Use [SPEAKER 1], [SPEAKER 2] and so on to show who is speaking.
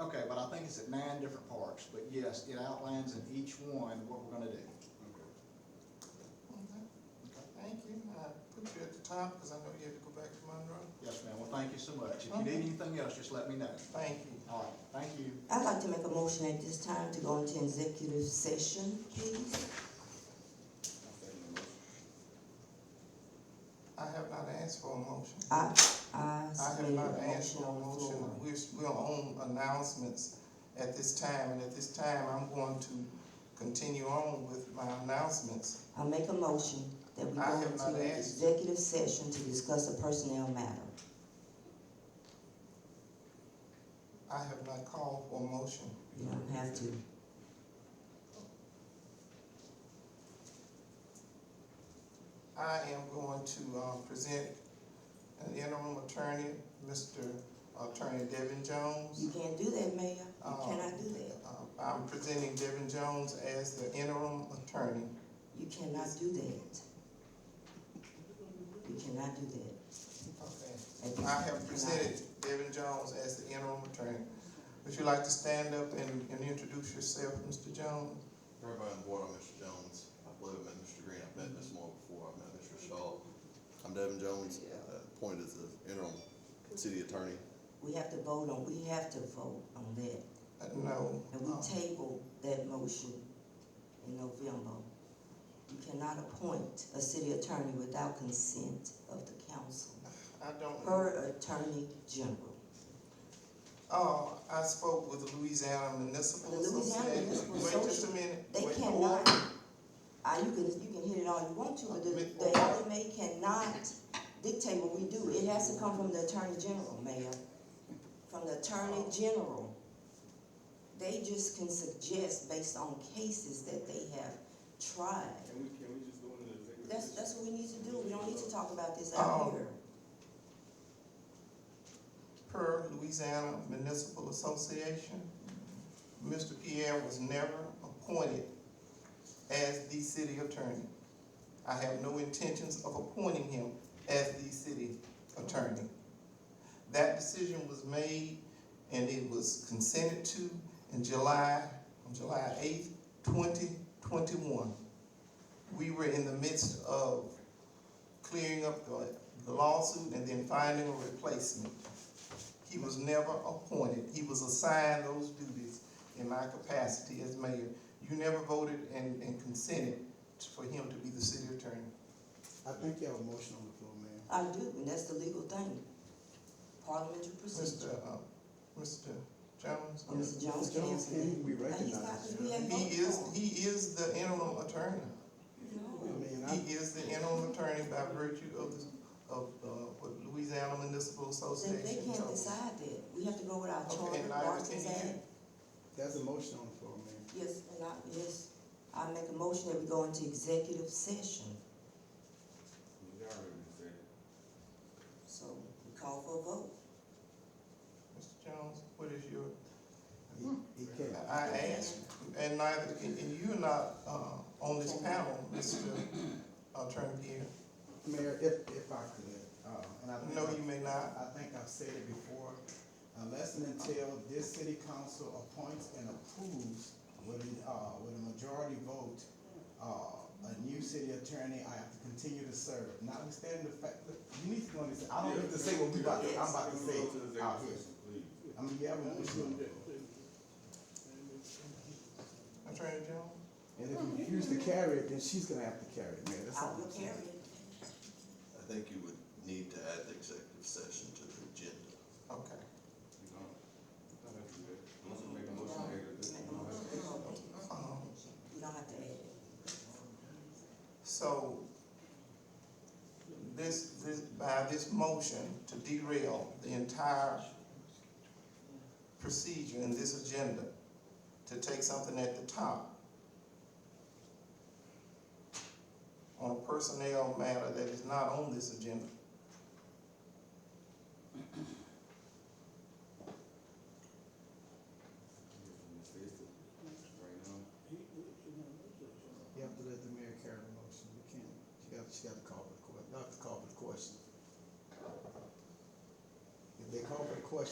[SPEAKER 1] Okay, but I think it's at nine different parks, but yes, it outlines in each one what we're gonna do. Okay.
[SPEAKER 2] Thank you, I put you at the top because I know you had to go back to Monroe.
[SPEAKER 1] Yes, ma'am, well, thank you so much. If you
[SPEAKER 2] Okay.
[SPEAKER 1] need anything else, just let me know.
[SPEAKER 2] Thank you.
[SPEAKER 1] All right, thank you.
[SPEAKER 3] I'd like to make a motion at this time to go into executive session, please.
[SPEAKER 2] I have not asked for a motion.
[SPEAKER 3] I, I
[SPEAKER 2] I have
[SPEAKER 3] submitted
[SPEAKER 2] not
[SPEAKER 3] a
[SPEAKER 2] asked for
[SPEAKER 3] motion
[SPEAKER 2] a
[SPEAKER 3] on the
[SPEAKER 2] motion.
[SPEAKER 3] floor.
[SPEAKER 2] We're, we're on announcements at this time, and at this time, I'm going to continue on with my announcements.
[SPEAKER 3] I make a motion that we
[SPEAKER 2] I
[SPEAKER 3] go
[SPEAKER 2] have not
[SPEAKER 3] into
[SPEAKER 2] asked.
[SPEAKER 3] executive session to discuss a personnel matter.
[SPEAKER 2] I have not called for a motion.
[SPEAKER 3] You don't have to.
[SPEAKER 2] I am going to, uh, present an interim attorney, Mr. Attorney Devin Jones.
[SPEAKER 3] You can't do that, Mayor. You
[SPEAKER 2] Oh.
[SPEAKER 3] cannot do that.
[SPEAKER 2] Uh, I'm presenting Devin Jones as the interim attorney.
[SPEAKER 3] You cannot do that. You cannot do that.
[SPEAKER 2] Okay.
[SPEAKER 3] At this
[SPEAKER 2] I
[SPEAKER 3] time, you
[SPEAKER 2] have
[SPEAKER 3] cannot.
[SPEAKER 2] presented Devin Jones as the interim attorney. Would you like to stand up and, and introduce yourself, Mr. Jones?
[SPEAKER 4] Everybody on board, I'm Mr. Jones. I believe I met Mr. Green. I've met Ms. Moore before. I've met Mr. Shaw. I'm Devin Jones, uh, appointed as the interim city attorney.
[SPEAKER 3] We have to vote on, we have to vote on that.
[SPEAKER 2] Uh, No.
[SPEAKER 3] And we tabled that motion in November. You cannot appoint a city attorney without consent of the council,
[SPEAKER 2] I don't.
[SPEAKER 3] per attorney general.
[SPEAKER 2] Oh, I spoke with the Louisiana Municipal
[SPEAKER 3] The Louisiana
[SPEAKER 2] Association.
[SPEAKER 3] Municipal
[SPEAKER 2] Wait just a
[SPEAKER 3] Association,
[SPEAKER 2] minute.
[SPEAKER 3] They
[SPEAKER 2] Wait,
[SPEAKER 3] cannot, ah, you can, you can hit it all you want to, but the, the LMA cannot dictate what we do. It has to come from the attorney general, mayor, from the attorney
[SPEAKER 5] Oh.
[SPEAKER 3] general. They just can suggest based on cases that they have tried.
[SPEAKER 5] Can we, can we just go into the executive?
[SPEAKER 3] That's, that's what we need to do, we don't need to talk about this
[SPEAKER 2] Oh.
[SPEAKER 3] out here.
[SPEAKER 2] per Louisiana Municipal Association, Mr. Pierre was never appointed as the city attorney. I have no intentions of appointing him as the city attorney. That decision was made and it was consented to in July, on July eighth, twenty twenty-one. We were in the midst of clearing up the the lawsuit and then finding a replacement. He was never appointed. He was assigned those duties in my capacity as mayor. You never voted and, and consented for him to be the city attorney.
[SPEAKER 6] I think you have a motion on the floor, ma'am.
[SPEAKER 3] I do, and that's the legal thing, parliamentary
[SPEAKER 2] Mr.
[SPEAKER 3] procedure.
[SPEAKER 2] uh, Mr. Jones?
[SPEAKER 3] Oh, Mr. Jones
[SPEAKER 6] Mr.
[SPEAKER 3] can
[SPEAKER 6] Jones,
[SPEAKER 3] answer that.
[SPEAKER 6] can we
[SPEAKER 3] And he's not,
[SPEAKER 6] recognize
[SPEAKER 3] because we
[SPEAKER 6] him?
[SPEAKER 2] He
[SPEAKER 3] haven't voted
[SPEAKER 2] is,
[SPEAKER 3] for him.
[SPEAKER 2] he is the interim attorney.
[SPEAKER 6] I
[SPEAKER 3] No,
[SPEAKER 6] mean, I,
[SPEAKER 2] He is the interim attorney by virtue of, the- of, uh, what Louisiana Municipal
[SPEAKER 3] they,
[SPEAKER 2] Association.
[SPEAKER 3] they can't
[SPEAKER 2] told us.
[SPEAKER 3] decide that, we have to go with our
[SPEAKER 2] Okay,
[SPEAKER 3] charter,
[SPEAKER 2] neither
[SPEAKER 3] Watkins
[SPEAKER 2] can you.
[SPEAKER 3] Act.
[SPEAKER 6] there's a motion on the floor, ma'am.
[SPEAKER 3] Yes, and I, yes, I make a motion that we go into executive session,
[SPEAKER 5] You already said it.
[SPEAKER 3] so we call for a vote.
[SPEAKER 2] Mr. Jones, what is your,
[SPEAKER 6] He, he can't.
[SPEAKER 2] I asked, and neither, and and you're not, uh, on this panel, Mr. Attorney Pierre.
[SPEAKER 6] Mayor, if, if I could, uh, and I think.
[SPEAKER 2] No, you may not.
[SPEAKER 6] I think I've said it before, unless and until this city council appoints and approves with, an, uh, with a majority vote, uh, a new city attorney, I have to continue to serve, notwithstanding the fact that, you need to go and say, I don't need to say what we about, to- I'm about to
[SPEAKER 5] Can we
[SPEAKER 6] say
[SPEAKER 5] go to the executive
[SPEAKER 6] out here.
[SPEAKER 5] session, please?
[SPEAKER 6] I mean, you have a motion on the floor.
[SPEAKER 2] Attorney Jones?
[SPEAKER 6] And if you refuse to carry it, then she's gonna have to carry it, Mayor. That's
[SPEAKER 3] I
[SPEAKER 6] all
[SPEAKER 3] will
[SPEAKER 6] I'm saying.
[SPEAKER 3] carry it.
[SPEAKER 4] I think you would need to add the executive session to the agenda.
[SPEAKER 2] Okay.
[SPEAKER 5] You don't, don't have to do that. Unless you make a motion, make it.
[SPEAKER 3] Make a motion, we go in.
[SPEAKER 2] Um,
[SPEAKER 3] We don't have to add it.
[SPEAKER 2] So, this, this, by this motion to derail the entire procedure in this agenda, to take something at the top on a personnel matter that is not on this agenda.